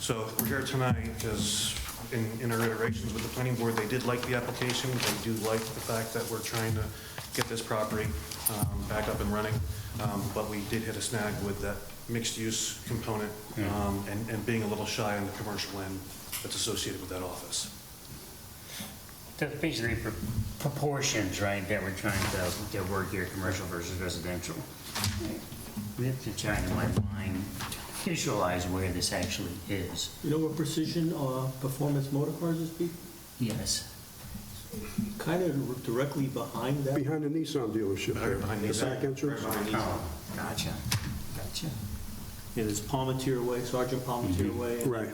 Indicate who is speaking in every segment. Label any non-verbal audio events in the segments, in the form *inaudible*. Speaker 1: So we're here tonight because in, in our iterations with the planning board, they did like the application. They do like the fact that we're trying to get this property um, back up and running. Um, But we did hit a snag with that mixed-use component um, and, and being a little shy on the commercial end that's associated with that office.
Speaker 2: That's basically pro- proportions, right, that we're trying to, to work here, commercial versus residential. We have to try to, in my mind, visualize where this actually is.
Speaker 3: You know what precision uh, performance motor cars is? Pete?
Speaker 2: Yes.
Speaker 3: Kind of directly behind that.
Speaker 4: Behind the Nissan dealership there.
Speaker 1: Behind
Speaker 4: The
Speaker 1: these-
Speaker 4: back entrance.
Speaker 1: Right behind these.
Speaker 2: Oh, gotcha, gotcha.
Speaker 3: Yeah, there's Palmetier Way, Sergeant Palmetier Way. and
Speaker 4: Mm-hmm. Right.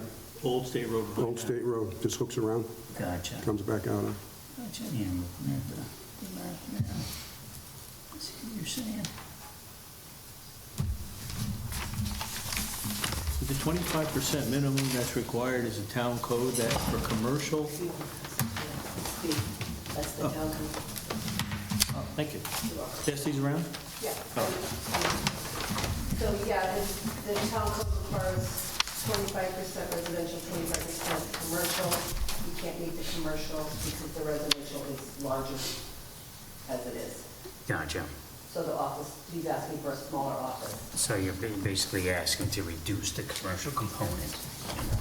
Speaker 3: Old State Road. behind
Speaker 4: Old
Speaker 3: that.
Speaker 4: State Road, just hooks around,
Speaker 2: Gotcha.
Speaker 4: comes back out. of-
Speaker 2: Gotcha. Yeah, I'm looking at the, the map now. I See what you're saying?
Speaker 3: The 25% minimum that's required is a town code that for commercial,
Speaker 5: That's the town council.
Speaker 3: oh, thank you. Desi's around?
Speaker 5: Yeah. So, yeah, the, the town code requires twenty-five percent residential, twenty-five percent commercial. You can't meet the commercial because the residential is larger as it is.
Speaker 2: Gotcha.
Speaker 5: So the office, he's asking for a smaller office.
Speaker 2: So you're ba- basically asking to reduce the commercial component.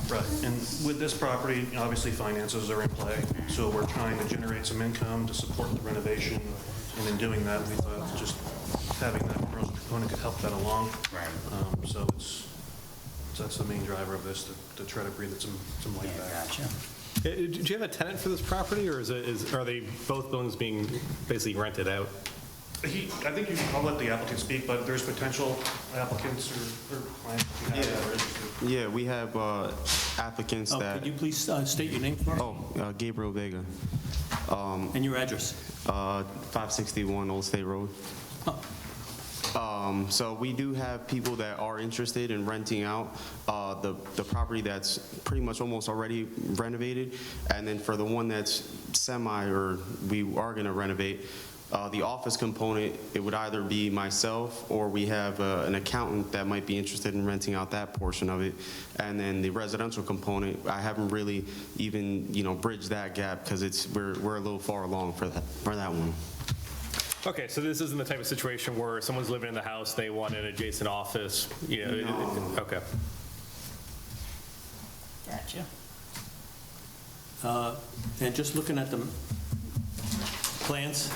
Speaker 1: Right, and with this property, obviously finances are in play, so we're trying to generate some income to support the renovation, and in doing that, we thought just having that commercial component could help that along.
Speaker 2: Right.
Speaker 1: Um, So it's, so that's the main driver of this, to- to try to breathe some, some
Speaker 2: Yeah,
Speaker 1: life back.
Speaker 2: gotcha.
Speaker 6: Uh, Do you have a tenant for this property, or is it, is, are they both buildings being basically rented out?
Speaker 1: He, I think you should, I'll let the applicant speak, but there's potential applicants or or clients if you have that are interested.
Speaker 7: Yeah, we have uh, applicants
Speaker 3: Oh,
Speaker 7: that,
Speaker 3: Could you please uh, state your name for us
Speaker 7: oh, uh, Gabriel Vega, um,
Speaker 3: and your address?
Speaker 7: uh, 561 Old State Road.
Speaker 3: Oh,
Speaker 7: Um, So we do have people that are interested in renting out uh, the the property that's pretty much almost already renovated, and then for the one that's semi, or we are going to renovate, uh, the office component, it would either be myself, or we have uh, an accountant that might be interested in renting out that portion of it. And then the residential component, I haven't really even, you know, bridged that gap, because it's, we're we're a little far along for that, for that one.
Speaker 6: Okay, so this isn't the type of situation where someone's living in the house, they want an adjacent office, you know? it- it- Okay.
Speaker 2: Gotcha.
Speaker 3: Uh, And just looking at the plans,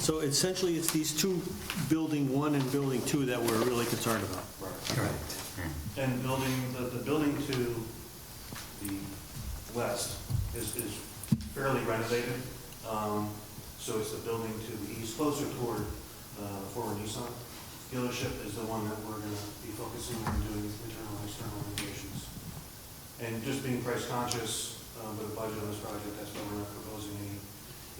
Speaker 3: so essentially, it's these two, building one and building two, that we're really concerned about.
Speaker 2: Correct.
Speaker 1: And building, the, the building to the west is, is fairly renovated. Um, So it's the building to the east, closer toward uh, the former Nissan dealership is the one that we're going to be focusing on doing internal and external renovations. And just being price conscious uh, with the budget on this project, that's why we're not proposing any,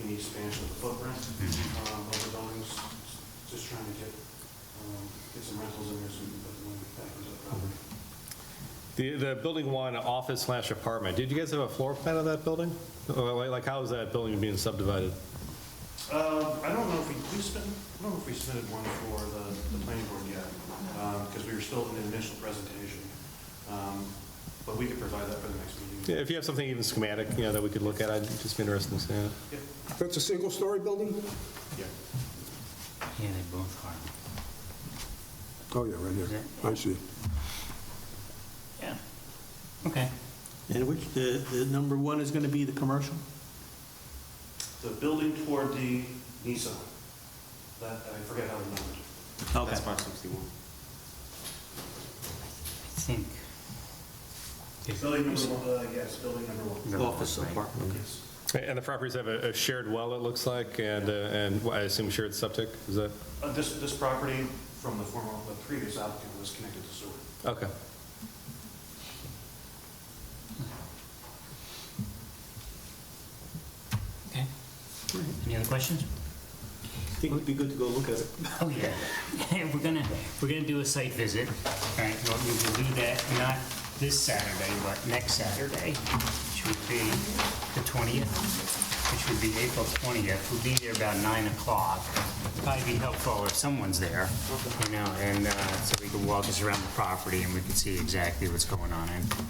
Speaker 1: any expansion of the footprint um, of the buildings. Just trying to get, um, get some rentals in there so we can put the money back into the property.
Speaker 6: The, the building one, office slash apartment, did you guys have a floor plan of that building? Or Like, like how is that building being subdivided?
Speaker 1: Uh, I don't know if we, we spent, I don't know if we submitted one for the, the planning board yet, because we were still in the initial presentation. Um, But we could provide that for the next
Speaker 6: Yeah,
Speaker 1: meeting.
Speaker 6: If you have something even schematic, you know, that we could look at, I'd just be interested in seeing it.
Speaker 4: That's a single-story building?
Speaker 1: Yeah.
Speaker 2: Yeah, they both are.
Speaker 4: Oh, yeah, right here. I see.
Speaker 2: Yeah. Okay.
Speaker 3: And which, the, the number one is going to be the commercial?
Speaker 1: The building toward the Nissan, that, I forget how to number it.
Speaker 3: Okay.
Speaker 7: That's 561.
Speaker 2: I think.
Speaker 1: Building number, one, uh, yes, building number one.
Speaker 3: Office apartment.
Speaker 1: Yes.
Speaker 6: And the properties have a a shared well, it looks like, and, uh, and well, I assume shared septic, is that,
Speaker 1: Uh, This, this property from the former, the previous applicant was connected to sewer.
Speaker 6: okay.
Speaker 2: Okay. Any other questions?
Speaker 3: I think it'd be good to go look at it.
Speaker 2: *laughs* Oh, yeah. *laughs* We're gonna, we're gonna do a site visit. All right, well, we will do that, not this Saturday, but next Saturday, which would be the 20th, which would be April 20th. We'll be there about 9 o'clock. Probably be helpful if someone's there, you know, and uh, so we can walk us around the property and we can see exactly what's going on. And